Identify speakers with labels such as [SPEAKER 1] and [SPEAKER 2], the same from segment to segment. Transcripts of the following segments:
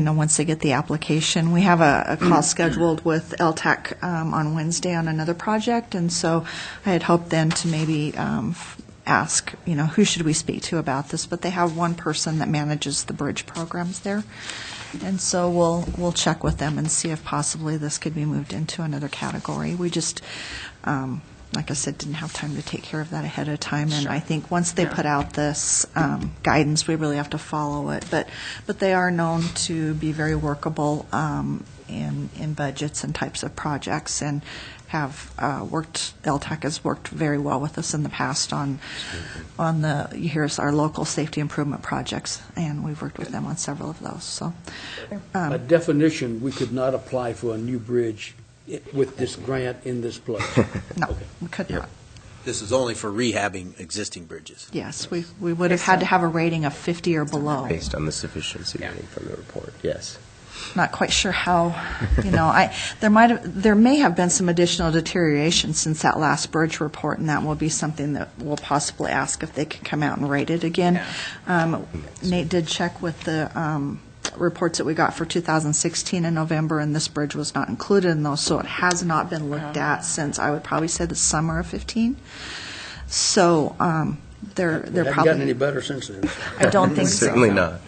[SPEAKER 1] you know, once they get the application. We have a, a call scheduled with LTAC um, on Wednesday on another project, and so I had hoped then to maybe um, f- ask, you know, who should we speak to about this? But they have one person that manages the bridge programs there. And so we'll, we'll check with them and see if possibly this could be moved into another category. We just, um, like I said, didn't have time to take care of that ahead of time. And I think once they put out this um, guidance, we really have to follow it. But, but they are known to be very workable um, in, in budgets and types of projects and have uh, worked, LTAC has worked very well with us in the past on, on the, here's our local safety improvement projects. And we've worked with them on several of those, so. um,
[SPEAKER 2] By definition, we could not apply for a new bridge i- with this grant in this place.
[SPEAKER 1] No,
[SPEAKER 2] Okay.
[SPEAKER 1] we could not.
[SPEAKER 3] This is only for rehabbing existing bridges.
[SPEAKER 1] Yes, we, we would have had to have a rating of 50 or below.
[SPEAKER 4] Based on the sufficiency rating from the report, yes.
[SPEAKER 1] Not quite sure how, you know, I, there might have, there may have been some additional deterioration since that last bridge report, and that will be something that we'll possibly ask if they can come out and rate it again. Um, Nate did check with the um, reports that we got for 2016 in November, and this bridge was not included in those, so it has not been looked
[SPEAKER 2] Uh-huh.
[SPEAKER 1] at since, I would probably say, the summer of 15. So um, they're,
[SPEAKER 2] It
[SPEAKER 1] they're
[SPEAKER 2] Haven't gotten
[SPEAKER 1] probably,
[SPEAKER 2] any better since then.
[SPEAKER 1] I don't think so.
[SPEAKER 4] Certainly not.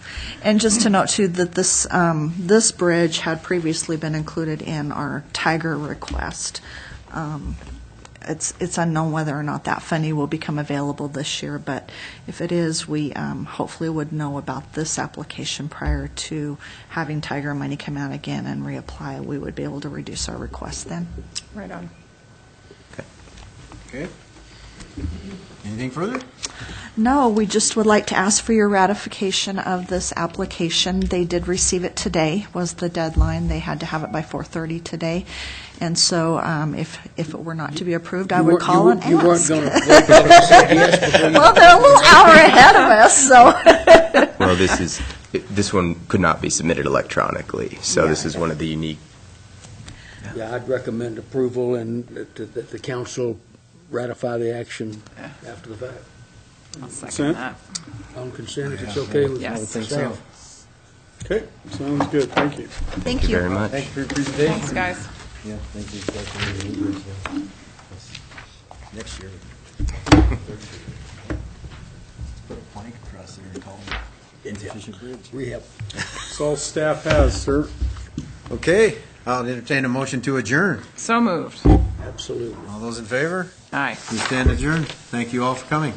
[SPEAKER 1] And just to note too, that this, um, this bridge had previously been included in our Tiger request. Um, It's, it's unknown whether or not that funding will become available this year, but if it is, we um, hopefully would know about this application prior to having Tiger money come out again and reapply. We would be able to reduce our request then.
[SPEAKER 5] Right on.
[SPEAKER 6] Okay. Anything further?
[SPEAKER 1] No, we just would like to ask for your ratification of this application. They did receive it today, was the deadline. They had to have it by 4:30 today. And so um, if, if it were not to be approved, I
[SPEAKER 2] You
[SPEAKER 1] would
[SPEAKER 2] weren't-
[SPEAKER 1] call
[SPEAKER 2] you-
[SPEAKER 1] and ask.
[SPEAKER 2] You weren't going to break out and say yes before you...
[SPEAKER 1] Well, they're a little hour ahead of us, so.
[SPEAKER 4] Well, this is, it- this one could not be submitted electronically, so this is one of the unique,
[SPEAKER 2] Yeah, I'd recommend approval and that- that that the council ratify the action after the fact.
[SPEAKER 5] I'll second
[SPEAKER 7] Consent?
[SPEAKER 5] that.
[SPEAKER 2] On consent, if it's okay with
[SPEAKER 5] Yes. I would think so.
[SPEAKER 2] staff.
[SPEAKER 7] Okay, sounds good, thank you.
[SPEAKER 1] Thank
[SPEAKER 4] thank you
[SPEAKER 1] you.
[SPEAKER 4] very much.
[SPEAKER 6] Thank you for your presentation.
[SPEAKER 5] Thanks, guys.
[SPEAKER 6] Yeah, thank you. Next year. Put a plank across there and call it insufficient bridge. Rehab.
[SPEAKER 7] That's all staff has, sir.
[SPEAKER 6] Okay, I'll entertain a motion to adjourn.
[SPEAKER 5] So moved.
[SPEAKER 2] Absolutely.
[SPEAKER 6] All those in favor?
[SPEAKER 5] Aye.
[SPEAKER 6] We stand adjourned. Thank you all for coming.